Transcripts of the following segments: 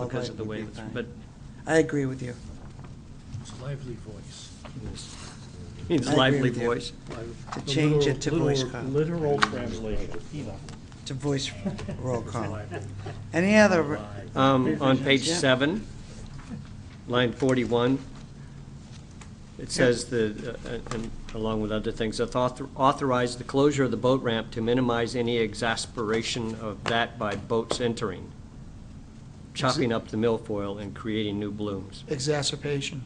Oh, because of the way, would be it's- fine. but I agree with you. It's lively voice. it's I agree lively with you. voice. To The change it to literal- voice literal- call. Literal translation, you know. To voice roll call. Lively. Any other, Um, On page Yeah. seven, line 41, it says the, uh, and along with other things, "Author- authorize the closure of the boat ramp to minimize any exasperation of that by boats entering, chopping up the milfoil and creating new blooms. Exacerbation.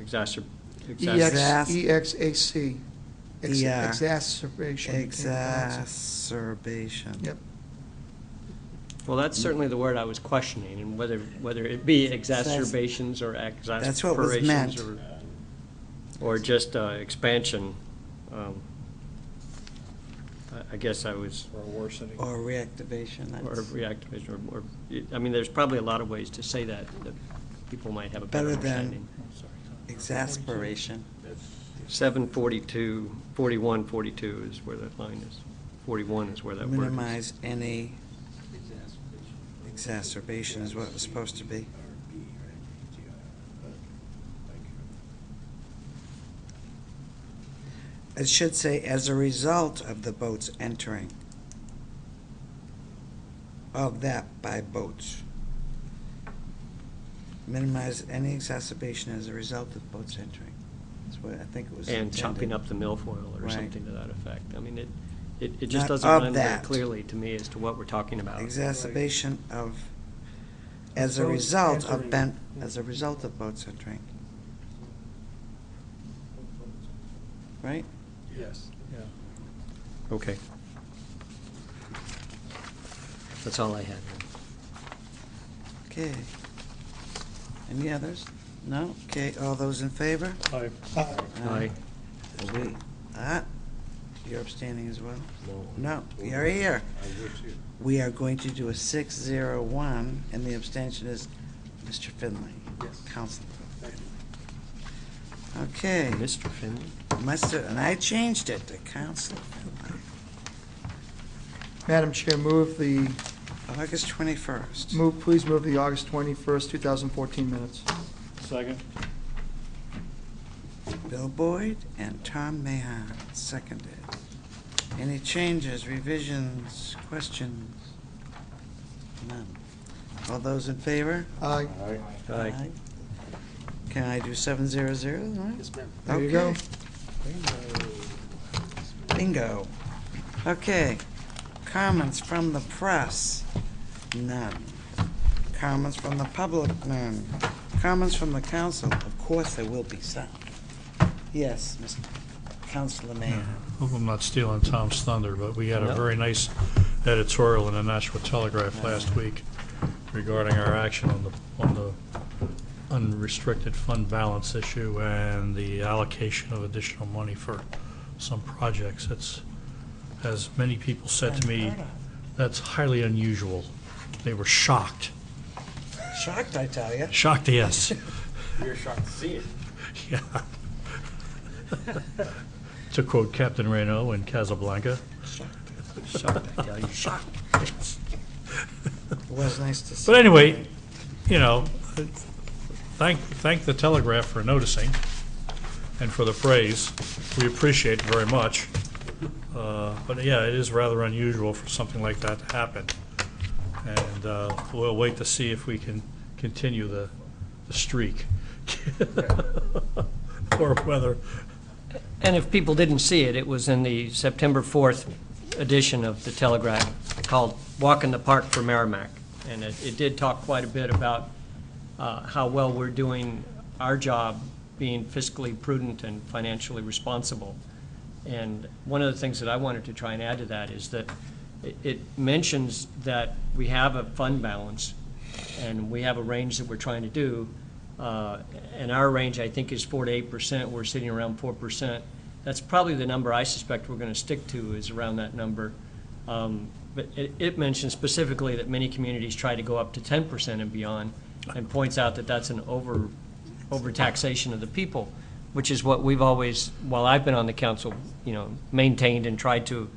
Exacer- EX, exacer- Exac- EXAC. Ex- Yeah. Exacerbation. became pronounced. exacerbation? Yep. Well, that's certainly the word I was questioning, and whether, whether it be exacerbations or That's what was exasperations meant. or, or just uh, expansion. um, I- I guess I was, Or worsening. Or reactivation, or that's reactivation, or- or, I mean, there's probably a lot of ways to say that, that people might have a better Better than- understanding. I'm sorry. exasperation. Seven forty-two, forty-one, forty-two is where that line is. Forty-one is where that word is. Minimize any exacerbation is what it was supposed to be. It should say, as a result of the boats entering. Of that by boats. Minimize any exacerbation as a result of boats entering. That's what I think it was And chopping intended. up the milfoil or Right. something to that effect. I mean, it, it, it Not just doesn't of run very that. clearly to me as to what we're talking about. Exacerbation of, as a Boats result of entering. ben, as a result of boats entering. Right? Yes, yeah. Okay. That's all I had. Okay. Any others? No? Okay, all those in favor? Aye. Aye. Aye. We- Ah, you're abstaining as well? No, you're here. We are going to do a six zero one, and the abstention is Mr. Finley. Yes. Counselor. Okay. Mr. Finley? Must have, and I changed it to council. Finley. Madam Chair, move the, August 21st. move, please move the August 21st, 2014 minutes. Second? Bill Boyd and Tom Mahon, seconded. Any changes, revisions, questions? None. All those in favor? Aye. Aye. Can I do 700? Yes, ma'am. There you go. Bingo. Okay. Comments from the press? None. Comments from the public? None. Comments from the council? Of course, there will be some. Yes, Mr. Councilor Mayor. Hope I'm not stealing Tom's thunder, but we had No. a very nice editorial in the Nashua Telegraph last week regarding our action on the, on the unrestricted fund balance issue and the allocation of additional money for some projects. It's, as many people said to me, that's highly unusual. They were shocked, Shocked, I tell you. shocked, yes. We were shocked to see it. Yeah. To quote Captain Reno in Casablanca, Shocked, I tell you. Shocked. It was nice to see. But anyway, you know, thank, thank the Telegraph for noticing and for the praise. We appreciate it very much. Uh, But yeah, it is rather unusual for something like that to happen. And uh, we'll wait to see if we can continue the the streak. Or whether, And if people didn't see it, it was in the September 4th edition of the Telegraph called Walk in the Park for Merrimack. And it, it did talk quite a bit about uh, how well we're doing our job being fiscally prudent and financially responsible. And one of the things that I wanted to try and add to that is that it- it mentions that we have a fund balance and we have a range that we're trying to do. Uh, And our range, I think, is four to eight percent. We're sitting around four percent. That's probably the number I suspect we're going to stick to is around that number. Um, But it, it mentions specifically that many communities try to go up to ten percent and beyond and points out that that's an over, overtaxation of the people, which is what we've always, while I've been on the council, you know, maintained and tried to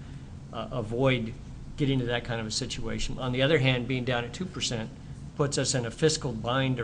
uh, avoid getting to that kind of a situation. On the other hand, being down at two percent puts us in a fiscal bind